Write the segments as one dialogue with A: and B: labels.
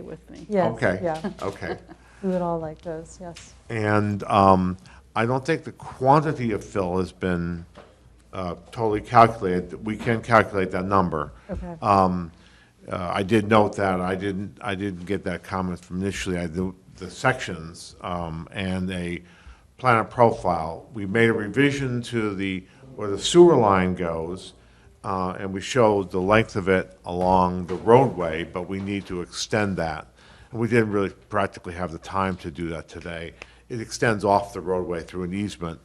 A: with me.
B: Yes,
C: Okay.
B: Yeah,
C: Okay.
B: we would all like those, yes.
C: And um, I don't think the quantity of fill has been uh, totally calculated. We can calculate that number.
B: Okay.
C: Um, uh, I did note that, I didn't, I didn't get that comment from initially, I, do- the sections, um, and a plan of profile. We made a revision to the, where the sewer line goes, uh, and we showed the length of it along the roadway, but we need to extend that. And we didn't really practically have the time to do that today. It extends off the roadway through an easement,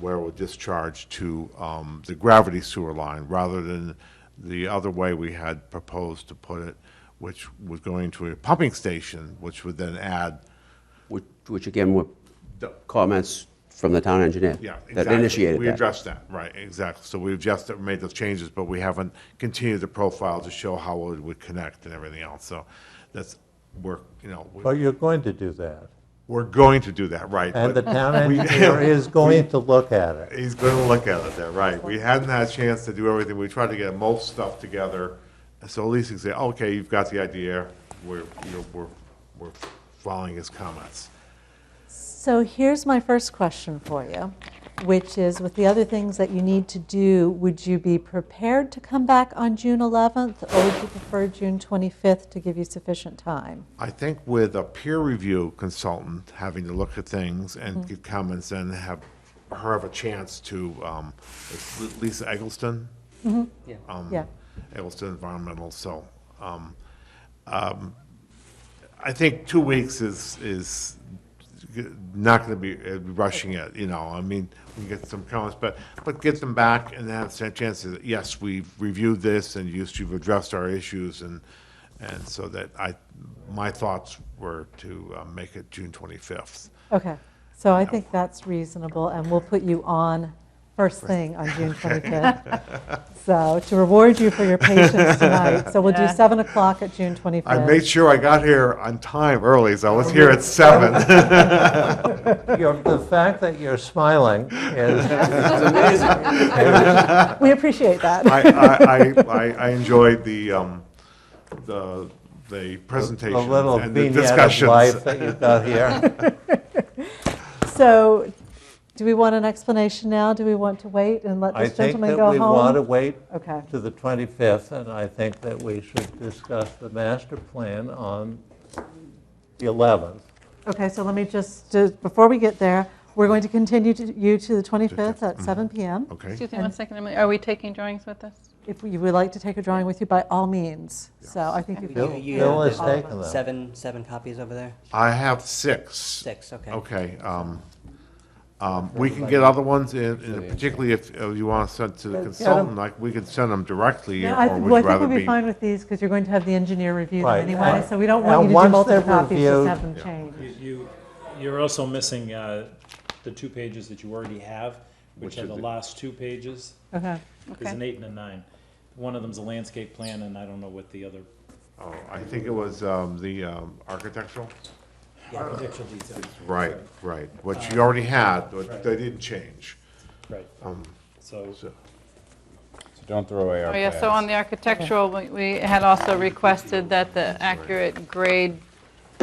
C: where it would discharge to um, the gravity sewer line, rather than the other way we had proposed to put it, which was going to a pumping station, which would then add,
D: Which, which again were
C: The-
D: comments from the town engineer.
C: yeah.
D: That
C: exactly.
D: initiated
C: We
D: that.
C: addressed that, right, exactly. So we've just made those changes, but we haven't continued the profile to show how it would connect and everything else. So that's, we're, you know, we-
E: But you're going to do that.
C: we're going to do that, right.
E: And the
C: but-
E: town engineer is going to look at it.
C: He's going to look at it there, right. We hadn't had a chance to do everything. We tried to get most stuff together. So at least you can say, okay, you've got the idea. We're, you know, we're, we're following his comments.
B: So here's my first question for you, which is with the other things that you need to do, would you be prepared to come back on June 11th or would you prefer June 25th to give you sufficient time?
C: I think with a peer review consultant having to look at things and give comments and have her have a chance to, um, it's Lisa Eggleston? Um,
B: Yeah,
C: Eggleston Environmental, so, um, um, I think two weeks is, is not gonna be uh, rushing it, you know, I mean, we get some comments, but, but get them back and have a chance to, yes, we've reviewed this and you- you've addressed our issues and, and so that I, my thoughts were to uh, make it June twenty-fifth.
B: okay. So I think that's reasonable and we'll put you on first thing on June 25th. So to reward you for your patience tonight, so we'll do
A: Yeah.
B: 7 o'clock at June 25th.
C: I made sure I got here on time early, so I was here at seven.
E: Your- The fact that you're smiling is,
B: We appreciate that.
C: I, I, I, I- I enjoyed the, um, the, the presentation
E: the little
C: and the
E: vignette of
C: discussions.
E: life that you've got here.
B: So, do we want an explanation now? Do we want to wait and let
E: I
B: this
E: think
B: gentleman
E: that
B: go home?
E: we want to wait
B: Okay.
E: to the 25th, and I think that we should discuss the master plan on the 11th.
B: Okay, so let me just, just- before we get there, we're going to continue to you to the 25th at 7 PM.
C: Mm-hmm. Okay,
A: Excuse me one second, Emily. Are we taking drawings with us?
B: If you would like to take a drawing with you, by all means. So I think you
F: We
E: Bill-
F: do- you
E: Bill
F: have
E: has
F: the
E: taken them.
F: Seven, seven copies over there?
C: I have six.
F: Six, okay.
C: Okay, um, um, we can get other ones, in- in- particularly if uh, you want to send to the consultant, like, we could send them directly,
B: No, I- Well, I
C: or would you
B: think
C: rather
B: we'll
C: be?
B: be fine with these because you're going to have the engineer review them
E: Right,
B: anyway.
E: right.
B: So we don't
E: And
B: want you to do
E: once
B: multiple
E: they're
B: copies, just
E: reviewed-
B: have them changed.
G: You, you're also missing uh, the two pages that you already have, which are the last two pages.
B: Okay,
G: There's an eight and a nine. One of them's a landscape plan, and I don't know what the other
C: Oh, I think it was, um, the, um, architectural?
G: architectural detail.
C: Right, right, which you already had, but they didn't change.
G: Right. So,
H: Don't throw away our
A: Oh, yeah, so on the architectural, we- we had also requested that the accurate grade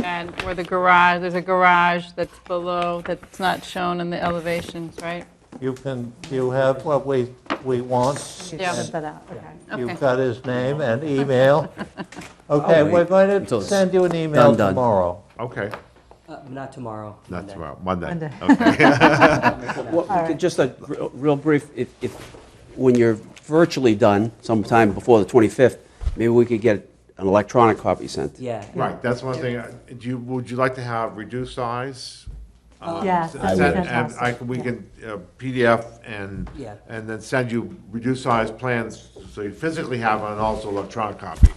A: and where the garage, there's a garage that's below, that's not shown in the elevations, right?
E: You can, you have what we, we want.
A: Yeah.
B: send that out, okay.
A: Okay.
E: You've got his name and email. Okay,
D: wait
E: we're going
D: until
E: to
D: it's
E: send you an email
D: done, done.
E: tomorrow.
C: Okay,
F: Uh, Not tomorrow.
C: not
F: Monday.
C: tomorrow, Monday.
B: Monday.
C: Okay.
D: Well, Just a r- real brief, if, if, when you're virtually done sometime before the 25th, maybe we could get an electronic copy sent.
F: Yeah.
C: Right, that's one thing, Uh, do you, would you like to have reduced size?
B: Yes, that'd
C: S-
B: be
C: send- and I
B: fantastic.
C: can, we
B: Yeah.
C: can uh, PDF and,
F: Yeah.
C: and then send you reduced size plans, so you physically have and also electronic copy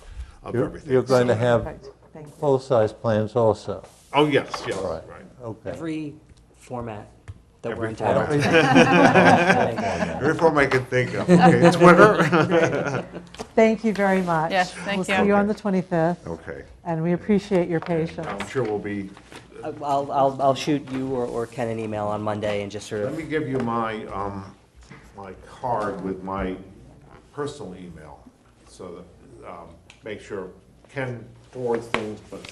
C: of
E: You're
C: everything.
E: you're going to
C: So-
E: have
B: Perfect, thank you.
E: full-size plans also.
C: Oh, yes, yes,
E: All right,
C: right.
E: okay.
F: Every format that
C: Every
F: we're entitled
E: Every-
F: to.
C: Every form I can think of, okay, Twitter?
B: Thank you very much.
A: Yes, thank
B: We'll see
A: you.
B: you on the 25th,
C: Okay,
B: and we appreciate your patience.
C: I'm sure we'll be,
F: I'll, I'll, I'll shoot you or, or Ken an email on Monday and just sort
C: let
F: of,
C: me give you my, um, my card with my personal email, so that, um, make sure Ken forwards things, but